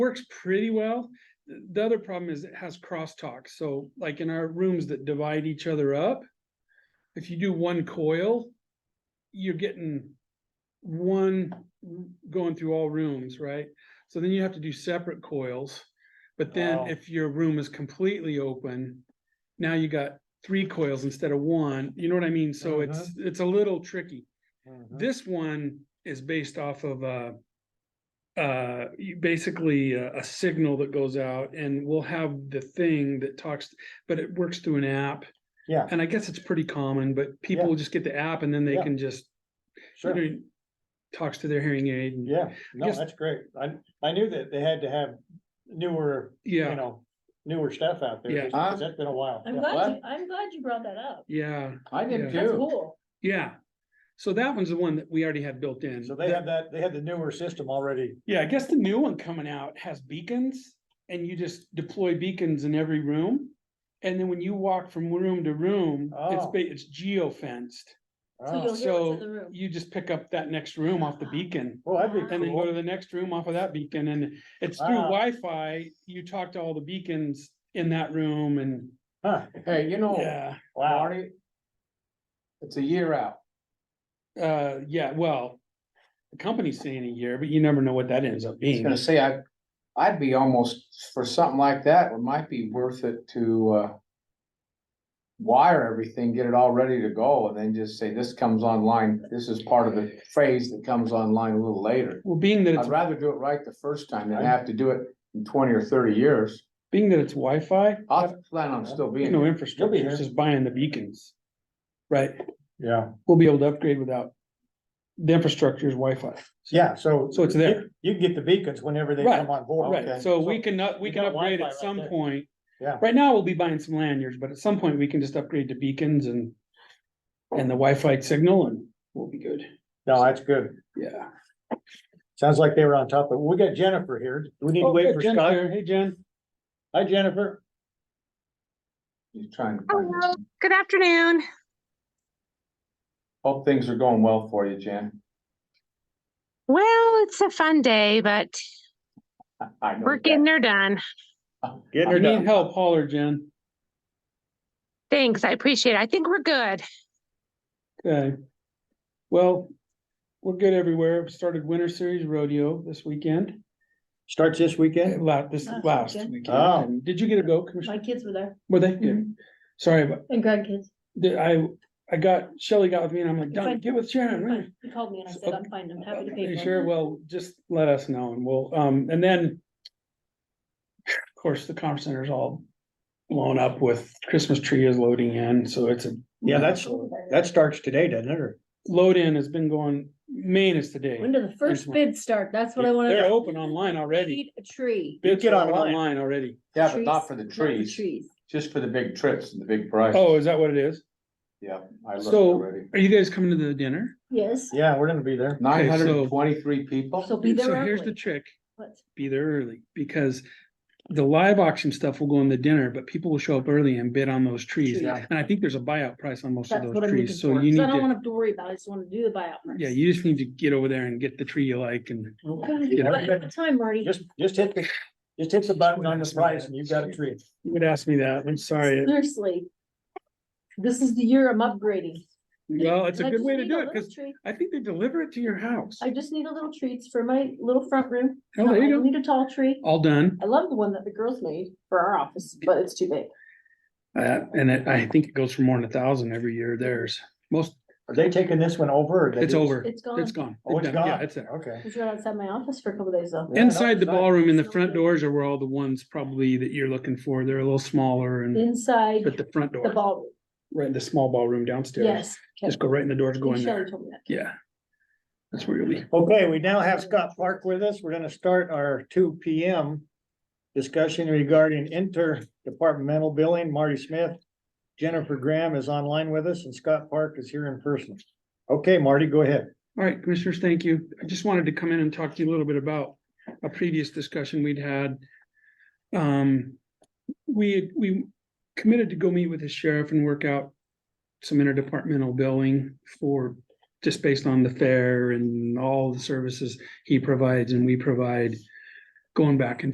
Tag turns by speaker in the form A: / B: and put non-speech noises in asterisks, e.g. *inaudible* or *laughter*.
A: works pretty well. The the other problem is it has crosstalk, so like in our rooms that divide each other up, if you do one coil, you're getting one going through all rooms, right? So then you have to do separate coils. But
B: Oh.
A: then if your room is completely open, now you got three coils instead of one, you know what I mean? So it's, it's a little tricky.
B: Mm-hmm.
A: This one is based off of uh uh, you- basically uh, a, a signal that goes out and we'll have the thing that talks, but it works through an app.
B: Yeah.
A: And I guess it's pretty common, but people
B: Yeah.
A: will just get the app and then they
B: Yeah.
A: can just, you
B: Sure,
A: know, talks to their hearing aid. and-
B: yeah, no,
A: guess-
B: that's great. I, I knew that they had to have newer, you
A: Yeah,
B: know, newer stuff out there.
A: Yeah.
B: just because That's been a while.
C: Uh, I'm
B: Yeah.
C: glad,
D: What?
C: you- I'm glad you brought that up.
A: yeah,
D: I did
A: Yeah.
C: That's
D: too.
C: cool.
A: yeah. So that one's the one that we already had built in.
B: So they
A: That-
B: have that, they had the newer system already.
A: Yeah, I guess the new one coming out has beacons and you just deploy beacons in every room. And then when you walk from room to room, it's,
B: Oh.
A: ba- it's geo fenced.
C: So you'll
B: Oh,
C: hear what's in
A: So
C: the room.
A: You just pick up that next room off the beacon
B: Oh, Well, that'd be
A: and then go to
B: cool.
A: the next room off of that beacon. And it's through
B: Wow.
A: Wi-Fi. You talk to all the beacons in that room and
B: Huh,
D: Hey, you know,
A: yeah,
B: wow,
D: Marty. It's a year out.
A: uh, yeah, well. The company's saying a year, but you never know what that ends up
D: I was
A: being.
D: gonna say, I, I'd be almost, for something like that, it might be worth it to, uh. Wire everything, get it all ready to go, and then just say, this comes online, this is part of the phase that comes online a little later.
A: Well, being that it's
D: I'd rather do it right the first time than have to do it in twenty or thirty years.
A: being that it's Wi-Fi,
D: I plan on still
A: you
D: being,
A: know,
D: here.
A: infrastructure,
B: here.
A: it's just buying the beacons. Right,
B: yeah,
A: we'll be able to upgrade without the infrastructure is Wi-Fi.
B: yeah, so.
A: So it's there.
B: you- You can get the beacons whenever they
A: Right,
B: come on board. Okay.
A: Right, so we can, up- we
B: you
A: can
B: got
A: upgrade
B: Wi-Fi
A: at
B: right
A: some
B: there.
A: point.
B: Yeah.
A: Right now, we'll be buying some lanyards, but at some point, we can just upgrade to beacons and, and the Wi-Fi signal and we'll be good,
B: No, that's good.
A: yeah.
B: Sounds like they were on top of, we got Jennifer here. Do we need to
A: Oh, yeah,
B: wait for
A: Jen's
B: Scott?
A: here. Hey, Jen.
B: Hi, Jennifer.
D: you're trying to. find
E: Hello,
D: it.
E: good afternoon.
D: Hope things are going well for you, Jan. *laughs*
E: Well, it's a fun day, but
D: I know
E: we're
D: that.
E: getting her done.
A: If you need help, holler, Jen.
E: Thanks, I appreciate it. I think we're good.
A: Okay. Well, we're good everywhere. We Started Winter Series Rodeo this weekend,
B: Starts this weekend?
A: la- this
C: Last
A: last
C: weekend.
A: weekend.
B: Oh.
A: And Did you get a go,
C: My
A: Commissioner?
C: kids were there Mhm.
A: Were they? Yeah.
C: Mm-hmm.
A: Sorry, but
C: and grandkids.
A: the- I, I got, Shelley got with me and I'm like,
C: You're fine.
A: Don, get with Sharon, right?
C: He called me and I said, I'm fine, I'm happy to
A: Okay,
C: pay for
A: Sure,
C: it.
A: well, just let us know and we'll, um, and then. Of course, the conference center's all blown up with Christmas tree is loading in, so it's a.
B: Yeah, that's, that starts today, doesn't it? Or
A: Load in has been going, Maine is today.
C: When do the first bids start? That's what I wanna
A: They're
C: know.
A: open online already.
C: Need A tree.
A: Bids
B: Get
A: are open
B: online.
A: online already.
D: Yeah, but not
C: Trees,
D: for the
C: not
D: trees,
C: Trees.
D: just for the big trips and the big price.
A: Oh, is that what it is?
D: Yeah, I looked
A: So-
D: already.
A: Are you guys coming to the dinner?
C: Yes,
B: Yeah, we're gonna be there.
D: Nine hundred
A: so-
D: and twenty-three people?
C: so be
A: So
C: there
A: here's the
C: early.
A: trick,
C: What?
A: be there early, because the live auction stuff will go in the dinner, but people will show up early and bid on those trees.
D: Yeah.
A: And I think there's a buyout price on most of
C: That's what
A: those
C: I'm looking
A: trees, so
C: for.
A: you need
C: So I don't
A: to,
C: wanna have to worry about it. I just wanna do the buyout.
A: yeah,
C: first.
A: you just need to get over there and get the tree you like and.
C: Okay.
A: get
C: What
A: it.
C: what time, Marty?
B: Just, just hit the, just hit the button on the price and you've got a tree.
A: You would ask me that, I'm sorry.
C: Seriously. This is the year I'm upgrading.
A: Well, it's a
C: I
A: good
C: just
A: way to
C: need
A: do
C: a
A: it,
C: little
A: because
C: tree.
A: I think they deliver it to your house.
C: I just need a little treats for my little front room.
A: Oh, there
C: I
A: you
C: don't
A: go. Oh.
C: Need a tall tree.
A: All done,
C: I love the one that the girls made for our office, but it's too big.
A: uh, and it- I think it goes for more than a thousand every year, theirs. Most,
B: Are they taking this one over? or they
A: it's
B: just-
A: over,
C: It's gone.
A: it's gone.
B: Oh, it's
A: They're done. Yeah,
B: gone.
A: it's there.
B: Okay.
C: It was right outside my office for a couple days though.
B: Yeah, no,
A: Inside the
B: it's not-
A: ballroom and the front doors are where all the ones probably that you're looking for. They're a little smaller and,
C: Inside
A: but the front
C: the
A: door,
C: ballroom.
A: right in the small ballroom downstairs.
C: Yes.
A: Just go right in the doors, go in
C: Shelly
A: there.
C: told me that.
A: Yeah. That's where you'll be.
B: Okay, we now have Scott Clark with us. We're gonna start our two P M discussion regarding interdepartmental billing. Marty Smith, Jennifer Graham is online with us and Scott Clark is here in person. Okay, Marty, go ahead.
A: All right, commissioners, thank you. I just wanted to come in and talk to you a little bit about a previous discussion we'd had. Um, we, we committed to go meet with the sheriff and work out some interdepartmental billing for, just based on the fare and all the services he provides and we provide, going back and